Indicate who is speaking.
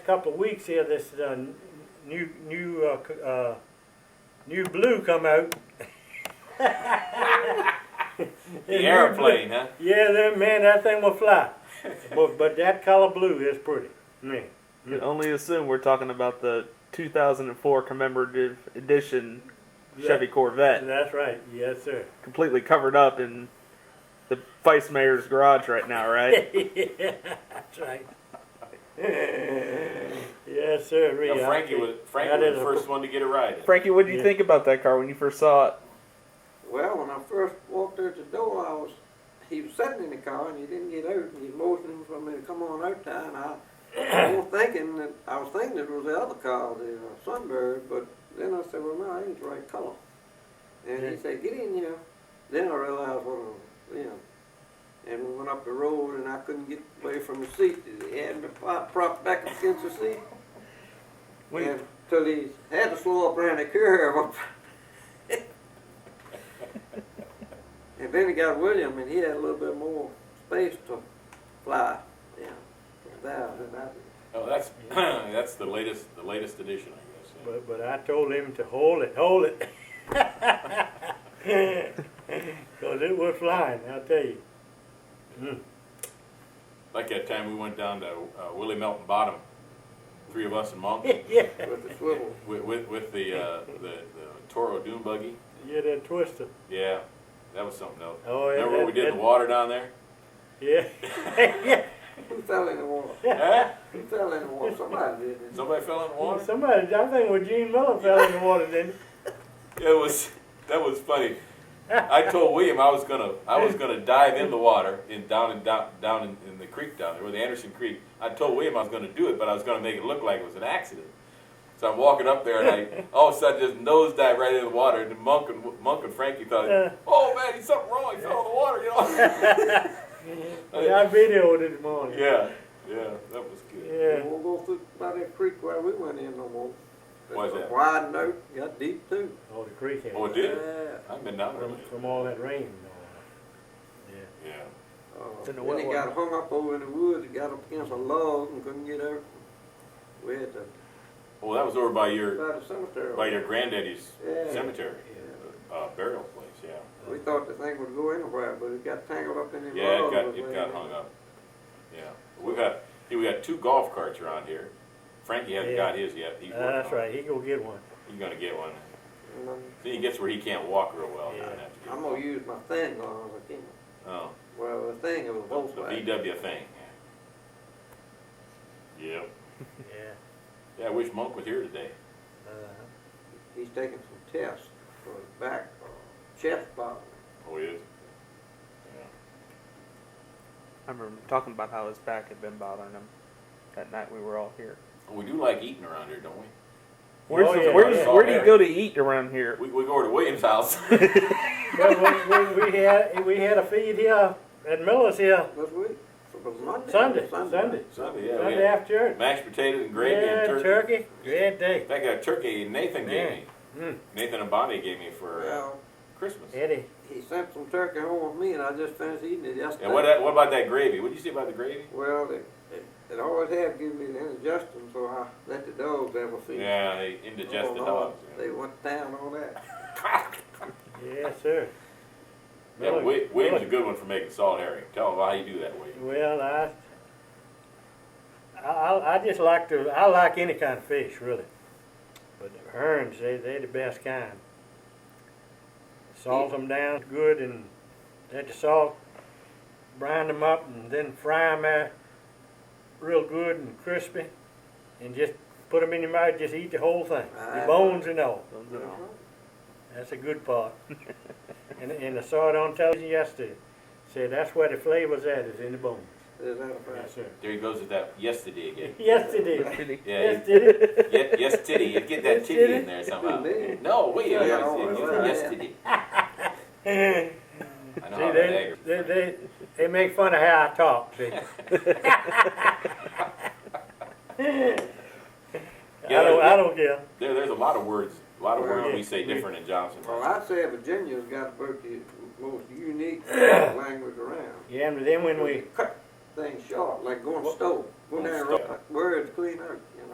Speaker 1: couple of weeks here, this uh, n- new new uh, c- uh, new blue come out.
Speaker 2: The airplane, huh?
Speaker 1: Yeah, then man, that thing will fly. but but that color blue is pretty. Man,
Speaker 3: You can only assume we're talking about the 2004 commemorative edition Chevy Corvette,
Speaker 1: that's right. Yes, sir.
Speaker 3: completely covered up in the vice mayor's garage right now, right?
Speaker 1: yeah, that's right. yes, sir.
Speaker 2: Now,
Speaker 1: Rita, I
Speaker 2: Frankie
Speaker 1: think
Speaker 2: was Frankie
Speaker 1: that
Speaker 2: was
Speaker 1: is
Speaker 2: the
Speaker 1: a-
Speaker 2: first one to get a ride. in.
Speaker 3: Frankie, what did you
Speaker 1: Yeah.
Speaker 3: think about that car when you first saw it?
Speaker 4: Well, when I first walked out the door, I was, he was sitting in the car and he didn't get out and he motioned for me to come on out there and I, I was thinking that, I was thinking it was the other car, the uh, Sunbird, but then I said, well, no, that ain't the right color. And he said, get in here. Then I realized what, I- you know, and we went up the road and I couldn't get away from the seat. He had me pro- propped back against the seat.
Speaker 3: When-
Speaker 4: And till he had to slow up around the curve. and then he got William, and he had a little bit more space to fly. Yeah, from there than I did.
Speaker 2: Oh, that's that's the latest the latest edition, I guess. yeah.
Speaker 1: But, but I told him to hold it, hold it. Because it was flying, I'll tell you. Mm.
Speaker 2: Like that time we went down to uh, Willie Melton Bottom, three of us and Monk
Speaker 1: yeah.
Speaker 4: with the swivel.
Speaker 2: with, with with the uh, the the Toro Dune buggy.
Speaker 1: Yeah, that twister.
Speaker 2: Yeah, that was something else.
Speaker 1: Oh, yeah,
Speaker 2: Remember what we
Speaker 1: that-
Speaker 2: did in
Speaker 1: that-
Speaker 2: the water down there?
Speaker 1: Yeah. yeah.
Speaker 4: Who fell in the water?
Speaker 2: Huh?
Speaker 4: Who fell in the water? Somebody did. didn't
Speaker 2: Somebody fell in the water.
Speaker 1: Somebody, I think when Gene Miller fell in the water, didn't
Speaker 2: It was that was funny. I told William I was gonna I was gonna dive in the water in down in down down in, in the creek down there, or the Anderson Creek. I told William I was gonna do it, but I was gonna make it look like it was an accident. So I'm walking up there, and I all of a sudden just nose dive right into the water. And Monk and Monk and Frankie thought,
Speaker 1: Uh.
Speaker 2: "Oh man, he's something wrong. He fell in the water." You know?
Speaker 1: Oh, Yeah, I videoed it this morning.
Speaker 2: yeah, yeah, that was good.
Speaker 4: they?
Speaker 1: Yeah.
Speaker 4: They won't go through by that creek where we went in no more.
Speaker 2: Why is that?
Speaker 4: Wide note, got deep too.
Speaker 1: Oh, the creek had
Speaker 2: Oh, it did.
Speaker 4: Yeah.
Speaker 2: I've been down there.
Speaker 1: From,
Speaker 2: lately.
Speaker 1: from all that rain. and all
Speaker 2: Yeah.
Speaker 4: Uh,
Speaker 3: It's in the
Speaker 4: then
Speaker 3: wet
Speaker 4: he
Speaker 3: one.
Speaker 4: got hung up over in the woods, and got up against a log and couldn't get out. We had to,
Speaker 2: Well, that was over by your
Speaker 4: by the cemetery.
Speaker 2: by your granddaddy's
Speaker 4: Yeah.
Speaker 2: cemetery uh, burial place. Yeah.
Speaker 4: We thought the thing would go anywhere, but it got tangled up in the
Speaker 2: Yeah, it
Speaker 4: log.
Speaker 2: got, it got hung up. Yeah, we've got, see, we got two golf carts around here. Frankie hasn't
Speaker 1: Yeah.
Speaker 2: got his yet. He's
Speaker 1: that. Uh,
Speaker 2: working
Speaker 1: that's
Speaker 2: on it.
Speaker 1: right. He go get one.
Speaker 2: He's gonna get one.
Speaker 4: And I'm,
Speaker 2: See, he gets where he can't walk real well.
Speaker 1: Yeah.
Speaker 2: doesn't have to get
Speaker 4: I'm
Speaker 2: one.
Speaker 4: gonna use my thing on it again.
Speaker 2: Oh,
Speaker 4: Well, the thing it was both
Speaker 2: the
Speaker 4: ways.
Speaker 2: VW thing. Yep.
Speaker 1: Yeah.
Speaker 2: Yeah, I wish Monk was here today.
Speaker 1: Uh,
Speaker 4: He's taking some tests for his back uh, chest problem.
Speaker 2: Oh, he is.
Speaker 3: I remember talking about how his back had been bothering him that night we were all here.
Speaker 2: Well, We do like eating around here, don't we?
Speaker 3: Where's
Speaker 1: Oh,
Speaker 3: the-
Speaker 1: yeah.
Speaker 3: where's-
Speaker 2: Yeah.
Speaker 3: where do you go to eat around here?
Speaker 2: We, we go over to Williams' house.
Speaker 1: well, we, we, we had we had a feed here at Miller's here
Speaker 4: This week, it was Monday.
Speaker 1: Sunday, Sunday,
Speaker 2: Sunday, Oh, yeah, we
Speaker 1: Sunday
Speaker 2: had
Speaker 1: after church.
Speaker 2: mashed potatoes and gravy
Speaker 1: yeah,
Speaker 2: and turkey.
Speaker 1: Great day.
Speaker 2: In fact, a turkey Nathan gave
Speaker 1: Man.
Speaker 2: me.
Speaker 1: Mm.
Speaker 2: Nathan and Bonnie gave me for uh,
Speaker 4: Well,
Speaker 2: Christmas.
Speaker 1: Eddie.
Speaker 4: he sent some turkey home with me, and I just finished eating it yesterday.
Speaker 2: Yeah, what, that- what about that gravy? What did you say about the gravy?
Speaker 4: Well, it, it, it always have given me the indigestion, so I let the dogs have a feed.
Speaker 2: Yeah, they indigest
Speaker 4: Oh,
Speaker 2: the
Speaker 4: no,
Speaker 2: dogs.
Speaker 4: They went down on that.
Speaker 1: Yes, sir.
Speaker 2: Yeah,
Speaker 1: Miller-
Speaker 2: Wi- William's a
Speaker 1: Miller-
Speaker 2: good one for making salt herring. Tell him how you do that, William.
Speaker 1: Well, I, I, I I just like to, I like any kind of fish, really. But the herons, they, they the best kind. Salt them down good and let the salt brine them up and then fry them real good and crispy. And just put them in your mouth, just eat the whole thing, the
Speaker 4: Aye.
Speaker 1: bones and all.
Speaker 3: Those are all-
Speaker 1: That's a good part. and, and I saw it on television yesterday. Said that's where the flavor's at, is in the bones.
Speaker 4: Is that a fact?
Speaker 1: sir.
Speaker 2: There he goes with that yesterday again.
Speaker 1: Yes, it is.
Speaker 2: Yeah,
Speaker 1: Yes, it is.
Speaker 2: yes, yes titty. You get that
Speaker 1: Yes,
Speaker 2: titty
Speaker 1: titty.
Speaker 2: in there somehow.
Speaker 4: Man.
Speaker 2: No, William,
Speaker 4: Yeah,
Speaker 2: I
Speaker 4: oh,
Speaker 2: said you
Speaker 4: well,
Speaker 2: for
Speaker 4: yeah.
Speaker 2: yesterday.
Speaker 1: See,
Speaker 2: I know how that
Speaker 1: they,
Speaker 2: aggravates.
Speaker 1: they, they, they make fun of how I talk, see. I don't, I don't care.
Speaker 2: There, there's a lot of words, a lot of words
Speaker 4: Well,
Speaker 2: we say
Speaker 1: we-
Speaker 2: different in Johnson.
Speaker 4: Well, I'd say Virginia's got about the most unique language around.
Speaker 1: Yeah, and then when we,
Speaker 4: Cut things short, like going stove.
Speaker 2: Won't
Speaker 4: Went down,
Speaker 2: stop.
Speaker 4: right, where it's clean out, you know.